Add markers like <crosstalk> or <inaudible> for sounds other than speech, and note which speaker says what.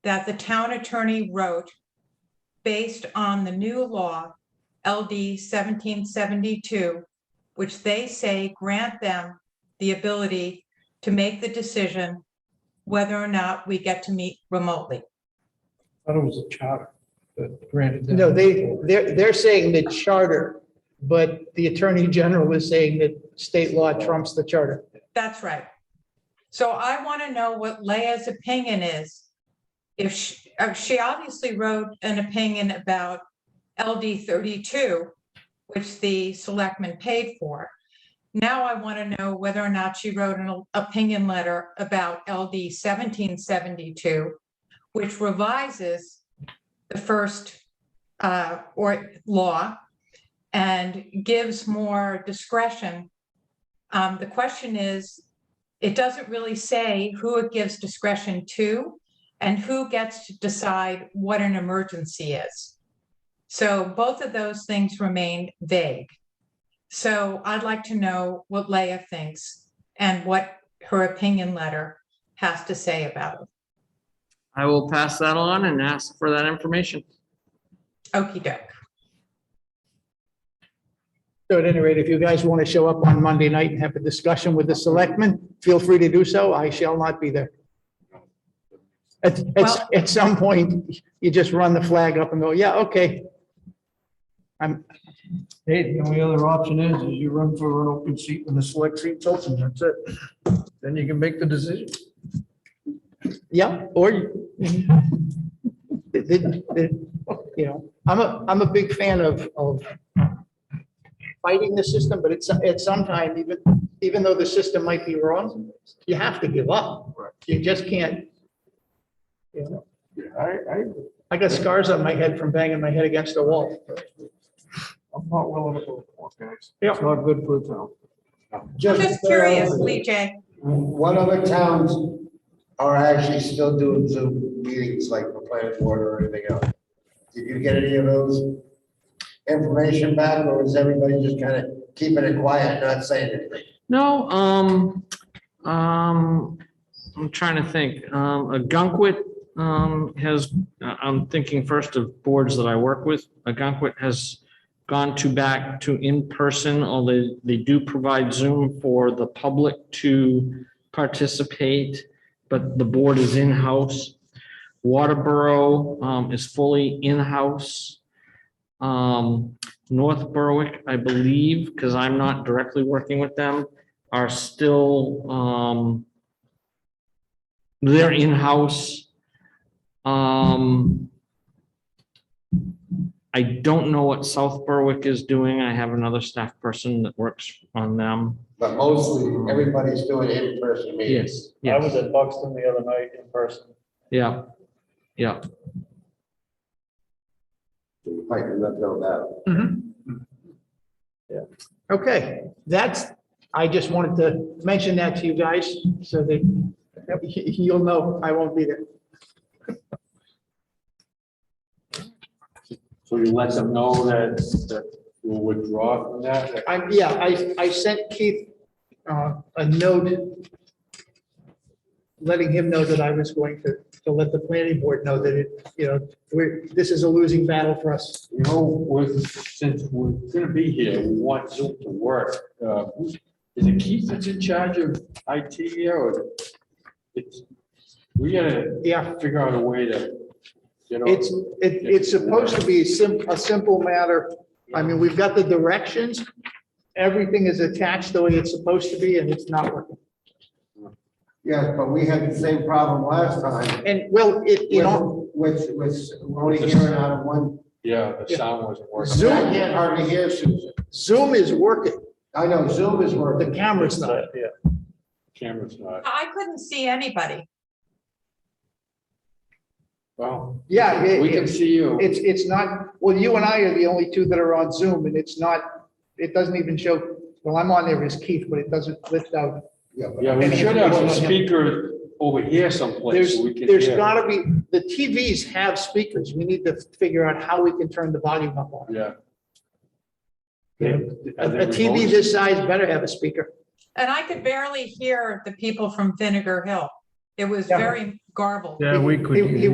Speaker 1: that the town attorney wrote based on the new law LD seventeen seventy-two, which they say grant them the ability to make the decision whether or not we get to meet remotely.
Speaker 2: thought it was a charter that granted them.
Speaker 3: No, they, they're, they're saying the charter, but the attorney general is saying that state law trumps the charter.
Speaker 1: That's right. So I want to know what Leah's opinion is. If she, uh, she obviously wrote an opinion about LD thirty-two, which the selectmen paid for. Now I want to know whether or not she wrote an o- opinion letter about LD seventeen seventy-two, which revises the first uh, or law and gives more discretion um, the question is, it doesn't really say who it gives discretion to and who gets to decide what an emergency is. So both of those things remain vague. So I'd like to know what Leah thinks and what her opinion letter has to say about it.
Speaker 4: I will pass that on and ask for that information.
Speaker 1: Okey doke.
Speaker 3: So at any rate, if you guys want to show up on Monday night and have a discussion with the selectmen, feel free to do so. I shall not be there. At,
Speaker 1: Well-
Speaker 3: at, at some point, you just run the flag up and go, yeah, okay. I'm,
Speaker 2: Hey, the only other option is, is you run for an open seat when the select seat's open, that's it. Then you can make the decision.
Speaker 3: yeah, or you- the- the- the- you know, I'm a, I'm a big fan of, of fighting the system, but it's, at some time, even, even though the system might be wrong, you have to give up. You just can't. You know,
Speaker 2: I, I,
Speaker 3: I got scars on my head from banging my head against the wall.
Speaker 2: I'm not willing to go for it, guys. Yeah. It's not good for the town.
Speaker 1: I'm just curious, Lee J.
Speaker 5: What other towns are actually still doing Zoom meetings like the planning board or anything else? Did you get any of those information back or is everybody just kind of keeping it quiet, not saying anything?
Speaker 4: No, um, um, I'm trying to think. Um, a Gunkwit, um, has, I- I'm thinking first of boards that I work with. A Gunkwit has gone to back to in-person, although they do provide Zoom for the public to participate, but the board is in-house. Waterboro, um, is fully in-house. Um, North Berwick, I believe, because I'm not directly working with them, are still, um, they're in-house. Um, I don't know what South Berwick is doing. I have another staff person that works on them.
Speaker 5: But mostly, everybody's doing in-person meetings.
Speaker 4: Yes,
Speaker 6: I was
Speaker 4: yes,
Speaker 6: at Buxton the other night in person.
Speaker 4: yeah, yeah.
Speaker 5: You might not know that.
Speaker 3: Okay, that's, I just wanted to mention that to you guys so that <laughs> you'll know I won't be there.
Speaker 7: So you let them know that, that you withdraw from that?
Speaker 3: I, yeah, I, I sent Keith uh, a note letting him know that I was going to, to let the planning board know that it, you know, we're, this is a losing battle for us.
Speaker 7: You know, with, since we're gonna be here, we want Zoom to work. Uh, who- Is it Keith that's in charge of IT here or? it's- We gotta
Speaker 3: Yeah,
Speaker 7: figure out a way to, you know.
Speaker 3: it's, it, it's supposed to be a sim, a simple matter. I mean, we've got the directions, everything is attached the way it's supposed to be and it's not working.
Speaker 5: Yes, but we had the same problem last time.
Speaker 3: And well, it, you know,
Speaker 5: With, with, we're only hearing out of one,
Speaker 7: Yeah, the
Speaker 3: Yeah.
Speaker 7: sound wasn't
Speaker 5: I
Speaker 7: working.
Speaker 5: can't hardly hear Susan.
Speaker 3: Zoom is working,
Speaker 5: I know Zoom is
Speaker 3: the
Speaker 5: working.
Speaker 3: camera's not.
Speaker 6: Yeah.
Speaker 7: Camera's uh, not,
Speaker 1: I couldn't see anybody.
Speaker 7: well,
Speaker 3: Yeah, it-
Speaker 7: we can see you.
Speaker 3: It's, it's not, well, you and I are the only two that are on Zoom and it's not, it doesn't even show, well, I'm on there as Keith, but it doesn't lift out.
Speaker 5: Yeah, but-
Speaker 7: Yeah, we should have some speaker over here someplace
Speaker 3: There's,
Speaker 7: so we can hear.
Speaker 3: there's gotta be, the TVs have speakers. We need to figure out how we can turn the volume up on. it.
Speaker 7: Yeah.
Speaker 3: Yeah.
Speaker 7: Are they
Speaker 3: A a TV
Speaker 7: remote?
Speaker 3: this size better have a speaker.
Speaker 1: And I could barely hear the people from Vinegar Hill. It was
Speaker 3: Yeah.
Speaker 1: very garbled.
Speaker 2: Yeah, we could.
Speaker 3: He- he